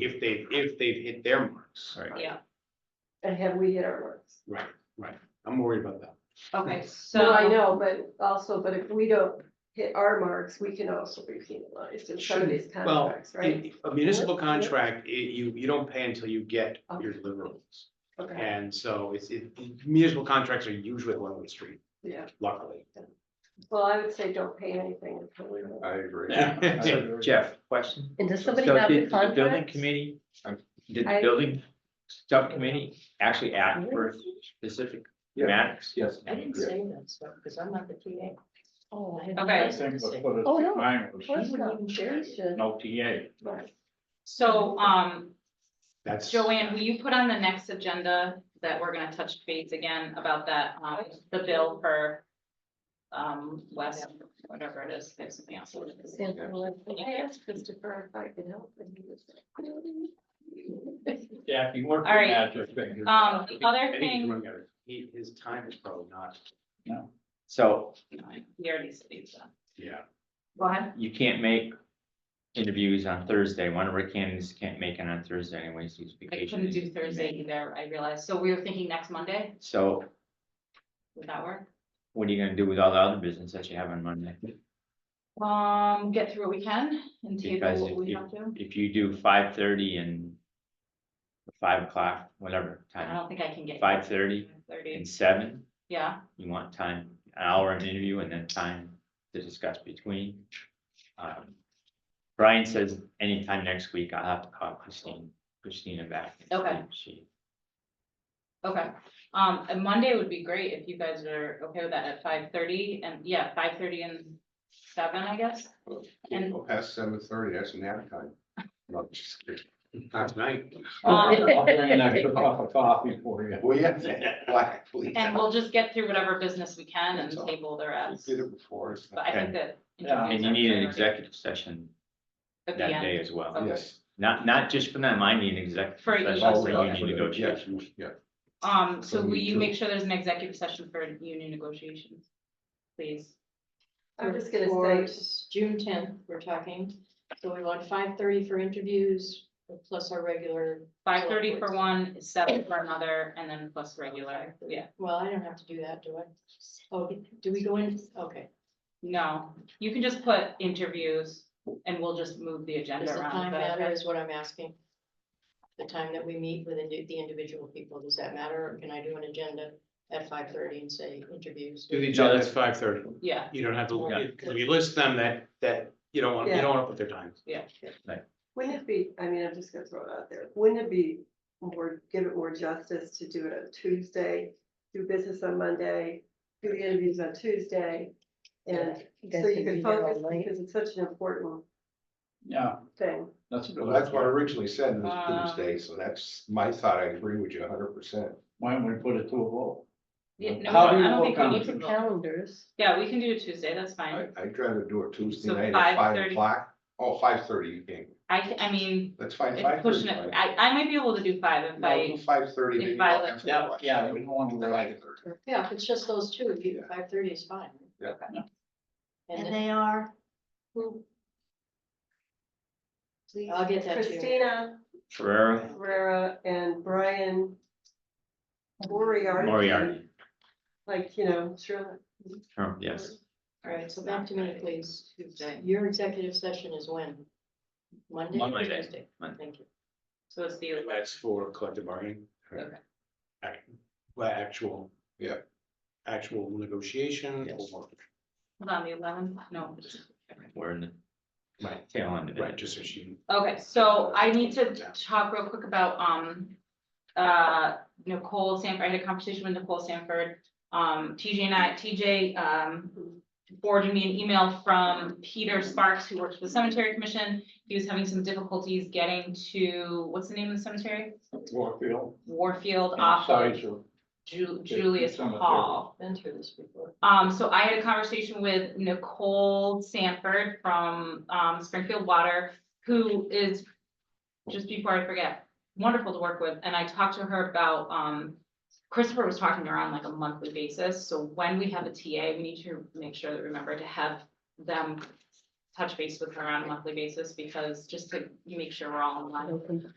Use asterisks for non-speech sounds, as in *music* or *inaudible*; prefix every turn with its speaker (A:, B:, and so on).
A: if they, if they've hit their marks.
B: Right.
C: yeah,
D: And have we hit our marks?
A: Right, right. I'm worried about that.
C: okay,
D: No, I
C: so,
D: know, but also, but if we don't hit our marks, we can also be penalized in some of these
A: Shouldn't- well,
D: contracts, right?
A: A- A municipal
D: Yeah, yeah.
A: contract, i- you, you don't pay until you get your deliverables.
D: Okay,
A: And so it's, it, municipal contracts are usually one-way street,
D: yeah,
A: luckily.
D: well, I would say don't pay anything until we.
E: I agree.
F: *laughs*
E: *laughs*
A: Yeah.
B: Jeff, question?
G: And does somebody
B: So
G: have the
B: did Building
G: contract?
B: committee, um, did the
D: I-
B: building subcommittee actually act for specific
E: Yeah.
B: matters?
E: Yes.
H: I didn't say that stuff, because I'm not the TA.
G: Oh, I
C: Okay.
G: have Oh, no. She wouldn't even share it.
F: No TA.
D: Right.
C: so, um,
A: That's.
C: Joanne, will you put on the next agenda that we're gonna touch base again about that, um, the bill for um, West, whatever it is, there's something else. Um,
D: I asked Christopher if I could help and he was like.
F: Yeah, you weren't.
C: All right.
F: right.
C: Um, the
A: I
C: other
A: think he's
C: thing,
A: running out of- He, his time is probably not,
B: So
C: he already said these, uh,
A: yeah.
C: Go ahead.
B: you can't make interviews on Thursday. One of our candidates can't make it on Thursday anyways, he's
C: I
B: vacation.
C: couldn't do Thursday either, I realized, so we were thinking next Monday,
B: So
C: would that work?
B: what are you gonna do with all the other business that you have on Monday?
C: Um, get through what we can and
B: Because
C: table
B: if
C: what we
B: you-
C: have to.
B: If you do five thirty and five o'clock, whatever
C: I
B: time,
C: don't think I can get.
B: five thirty
C: Thirty,
B: and seven,
C: yeah,
B: you want time, an hour of interview and then time to discuss between. Um, Brian says anytime next week, I'll have to call Christine, Christina back. and see
C: Okay.
B: if She,
C: okay. Um, and Monday would be great if you guys are okay with that at five thirty and yeah, five thirty and seven, I guess. And-
E: Well, Past seven thirty, that's nap time. No, I'm just kidding.
A: Not tonight.
C: *laughs*
F: *laughs*
C: Um,
F: I'll bring an
C: *laughs*
F: extra cup of coffee for you.
E: Well, yeah, black, please.
C: and we'll just get through whatever business we can and
E: That's all.
C: table the
E: We
C: rest,
E: Did it before. it's
C: but
E: not-
C: I think that.
F: Yeah.
C: interviews
B: and you need an
C: are priority
B: executive session
C: At
B: that
C: the end,
B: day as well,
C: Okay.
E: Yes.
B: not, not just for them, I need an
C: For
B: executive
C: each
B: session,
C: of
B: for
C: them.
B: union negotiations.
E: Yes, Yeah.
C: um, so
E: So
C: will
E: we
C: you
E: do.
C: make sure there's an executive session for union negotiations? Please,
D: I'm just
H: For
D: gonna say,
H: June tenth, we're talking, so we want five thirty for interviews, plus our regular.
C: five thirty for one, seven for another, and then plus regular, yeah.
H: Well, I don't have to do that, do I? Oh, do we go in, okay,
C: No, you can just put interviews and we'll just move the
H: does
C: agenda
H: the
C: around.
H: time
C: Is that
H: matter
C: okay?
H: is what I'm asking? The time that we meet with the the individual people, does that matter, or can I do an agenda at five thirty and say interviews?
A: Do the
B: agenda
A: agenda at five thirty.
C: Yeah,
A: You don't have to,
B: Yeah.
A: if you list them, that, that, you don't want, you
D: Yeah.
A: don't want to put their time.
D: wouldn't it be, I mean, I'm just gonna throw it out there, wouldn't it be more, give it more justice to do it on Tuesday? Do business on Monday, do the interviews on Tuesday, and so you can focus, because it's such an important
F: Yeah,
D: thing.
F: that's a good.
E: Well, that's what I originally said,
C: Um,
E: it was Tuesday, so that's my thought. I agree with you hundred percent.
F: Why don't we put it to a vote?
C: Yeah, no,
F: How do
C: I
F: you
C: don't
F: vote
C: think we
F: on
C: need
F: it?
C: to vote.
G: Calendars.
C: Yeah, we can do it Tuesday, that's
E: I,
C: fine.
E: I'd rather do it Tuesday
C: So
E: night at five
C: 5:30.
E: o'clock. Oh, five thirty, you can,
C: I, ca- I mean,
E: that's fine,
C: it's
E: five thirty.
C: pushing it, I, I might be able to do five if I,
E: Five thirty.
C: if
E: maybe
C: I
E: I'll
C: like-
E: have to
F: Yeah,
E: watch.
F: yeah, we don't want to
E: Five
F: like,
E: thirty.
H: Yeah, if it's just those two, if you, five thirty is fine.
E: Yeah.
F: Yeah.
H: And
G: And
H: then
G: they are,
H: who,
G: please.
H: I'll get that to you.
D: Christina
B: Ferrera,
D: Rivera and Brian Moriarty.
B: Moriarty,
D: Like, you know, sure.
B: Trump, yes,
H: All right, so back to me, please.
C: Tuesday.
H: Your executive session is when? Monday or
B: Monday.
H: Tuesday?
B: Monday.
H: Thank you.
C: so it's the,
A: That's for collective bargaining.
C: Okay.
A: Ac- Well, actual.
E: Yeah.
A: Actual negotiation
B: Yes.
A: or,
C: hold on, the eleventh, no.
B: we're in the
A: Right.
B: tail end of it.
A: right, just so she.
C: Okay, so I need to talk real quick about, um, uh, Nicole Sanford, I had a conversation with Nicole Sanford. Um, TJ and I, TJ, um, forwarded me an email from Peter Sparks, who works for the Cemetery Commission. He was having some difficulties getting to, what's the name of the cemetery?
F: Warfield.
C: Warfield off of
F: Sorry, Joe.
C: Ju- Julius
F: Cemetery.
C: Hall.
H: Been through this before.
C: Um, so I had a conversation with Nicole Sanford from, um, Springfield Water, who is, just before I forget, wonderful to work with, and I talked to her about, um, Christopher was talking to her on like a monthly basis, so when we have a TA, we need to make sure that, remember to have them touch base with her on a monthly basis because just to make sure we're all in line.
G: Open